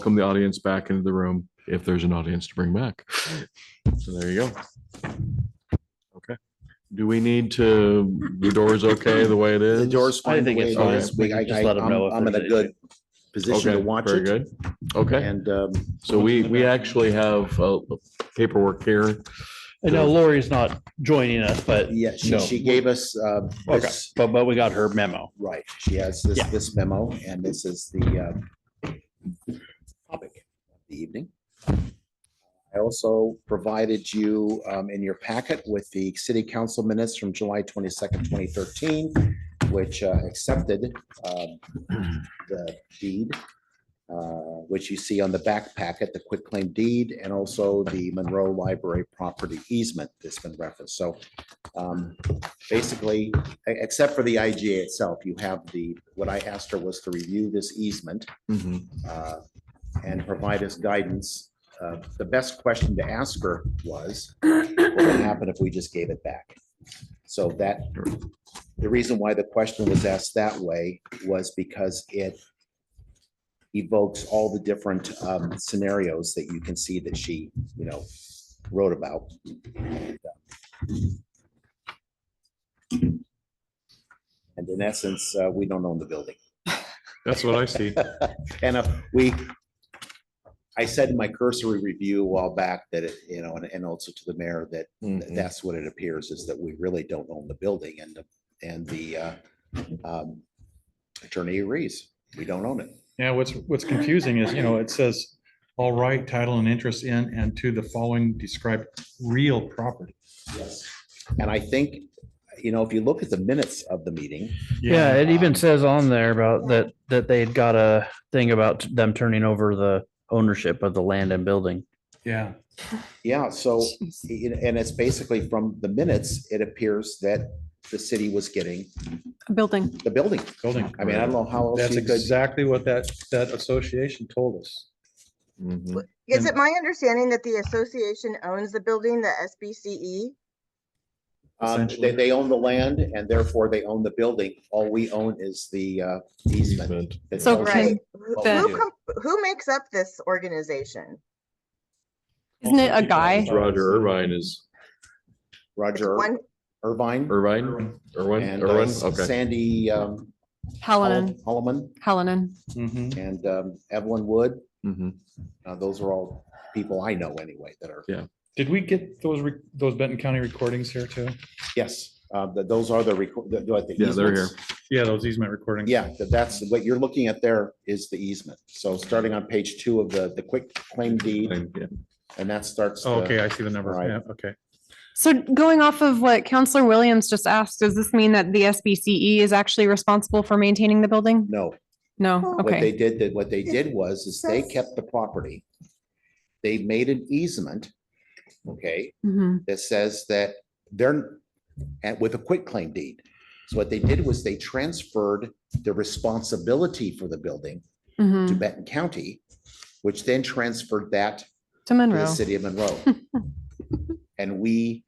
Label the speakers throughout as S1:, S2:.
S1: welcome the audience back into the room if there's an audience to bring back. So there you go. Okay. Do we need to, the door is okay the way it is?
S2: The door's
S3: I
S2: fine. the
S3: think
S2: way
S3: it's
S2: it
S1: fine.
S2: is.
S3: We
S2: We-
S3: can
S2: I-
S3: just
S2: I-
S3: let 'em know
S2: I'm
S3: if
S2: I'm in
S3: there's
S2: a good
S3: anything.
S2: position to
S1: Okay,
S2: watch
S1: very
S2: it.
S1: good. Okay,
S2: And um,
S1: so we, we actually have uh, paperwork here.
S3: I know Lori's not joining us, but,
S2: yeah, she,
S3: No.
S2: she gave us uh,
S3: okay,
S2: this,
S3: but, but we got her memo.
S2: right, she has this,
S3: Yeah.
S2: this memo and this is the uh, topic of the evening. I also provided you um, in your packet with the city council minutes from July twenty-second, twenty thirteen, which uh, accepted um, the deed, uh, which you see on the back packet, the quitclaim deed, and also the Monroe Library property easement that's been referenced. So um, basically, e- except for the IGA itself, you have the, what I asked her was to review this easement
S1: Mhm.
S2: uh, and provide us guidance. Uh, The best question to ask her was, what would happen if we just gave it back? So that, the reason why the question was asked that way was because it evokes all the different um, scenarios that you can see that she, you know, wrote about. And in essence, uh, we don't own the building.
S1: That's what I see.
S2: And uh, we, I said in my cursory review a while back that, it you know, and- and also to the mayor, that
S4: Mm-hmm.
S1: Mhm.
S2: that's what it appears is that we really don't own the building and, the- and the uh, um, attorney agrees, we don't own it.
S5: Yeah, what's, what's confusing is, you know, it says, all right, title and interest in and to the following described real property.
S2: And I think, you know, if you look at the minutes of the meeting,
S3: Yeah, it even
S2: Um,
S3: says on there about that, that they had got a thing about them turning over the ownership of the land and building.
S5: Yeah,
S2: yeah, so, and and it's basically from the minutes, it appears that the city was getting
S4: a building.
S2: the building.
S5: building.
S2: I mean, I don't know how else
S5: That's
S2: you could.
S5: exactly what that, that association told us.
S1: Mhm.
S6: Is
S5: And-
S6: it my understanding that the association owns the building, the SBCE?
S2: Um, they,
S5: essentially.
S2: they own the land and therefore they own the building. All we own is the uh, easement.
S1: Easement.
S2: that
S4: So
S2: tells us
S6: Right.
S2: what we
S4: the-
S6: Who
S2: do.
S6: com- who makes up this organization?
S4: Isn't it a guy?
S1: Roger Irvine is
S6: It's
S2: Roger
S6: one,
S2: Irvine.
S1: Irvine,
S5: Mm-hmm.
S1: Irwin,
S2: and uh,
S1: Irwin, okay.
S2: Sandy, um,
S4: Hallinan,
S2: Holloman
S4: Hallinan.
S5: Mhm.
S2: and um, Evelyn Wood.
S1: Mhm.
S2: Uh, those are all people I know anyway that are,
S5: Did we get those, re- those Benton County recordings here too?
S2: yes, uh, that those are the record.
S1: Yeah, they're here.
S5: Yeah, those easement recordings.
S2: Yeah, that- that's what you're looking at there is the easement. So starting on page two of the, the quick claim deed
S1: And, yeah.
S2: and that starts.
S5: Oh,
S2: the-
S5: Okay, I see the number.
S2: uh, Right.
S5: Yeah, okay.
S4: So going off of what Counselor Williams just asked, does this mean that the SBCE E is actually responsible for maintaining the building?
S2: No,
S4: No,
S2: What they
S4: okay.
S2: did, that what they did was, is they kept the property. They made an easement, okay,
S4: Mhm.
S2: that says that they're, and with a quitclaim deed. So what they did was they transferred the responsibility for the building to
S4: Mhm.
S2: Benton County, which then transferred that
S4: To
S2: to the
S4: Monroe.
S2: city of Monroe. And we,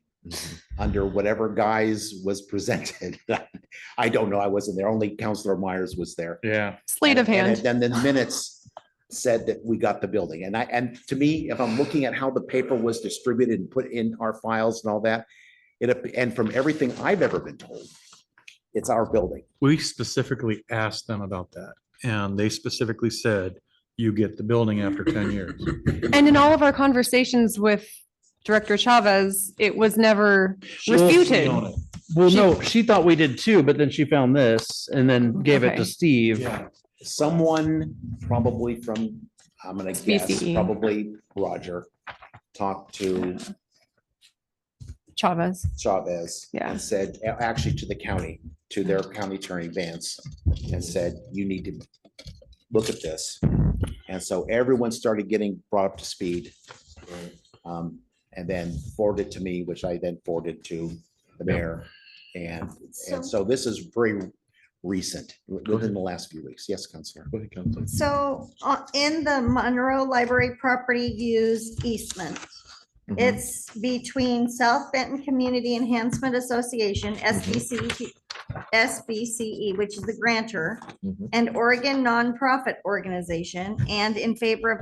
S2: under whatever guise was presented, I don't know, I wasn't there, only Counselor Myers was there.
S5: Yeah.
S4: Sleight of
S2: And- and
S4: hand.
S2: it- Then the minutes said that we got the building. And I, and to me, if I'm looking at how the paper was distributed and put in our files and all that, it, ap- and from everything I've ever been told, it's our building.
S5: We specifically asked them about that and they specifically said, you get the building after ten years.
S4: And in all of our conversations with Director Chavez, it was never refuted.
S3: Well,
S4: She-
S3: no, she thought we did too, but then she found this and then gave it
S4: Okay.
S3: to Steve.
S5: Yeah.
S2: Someone probably from, I'm gonna guess,
S4: SBCE.
S2: probably Roger, talked to
S4: Chavez.
S2: Chavez.
S4: Yeah.
S2: And said, a- actually to the county, to their county attorney Vance, and said, you need to look at this. And so everyone started getting brought up to speed. Um, and then forwarded to me, which I then forwarded to the mayor. And, and so this is very recent, within the last few weeks. Yes, Counselor.
S1: Go ahead, Counselor.
S7: So uh, in the Monroe Library property use easement,
S1: Mhm.
S7: it's between South Benton Community Enhancement Association, SBC, SBCE, which is the grantor,
S1: Mhm.
S7: and Oregon nonprofit organization, and in favor of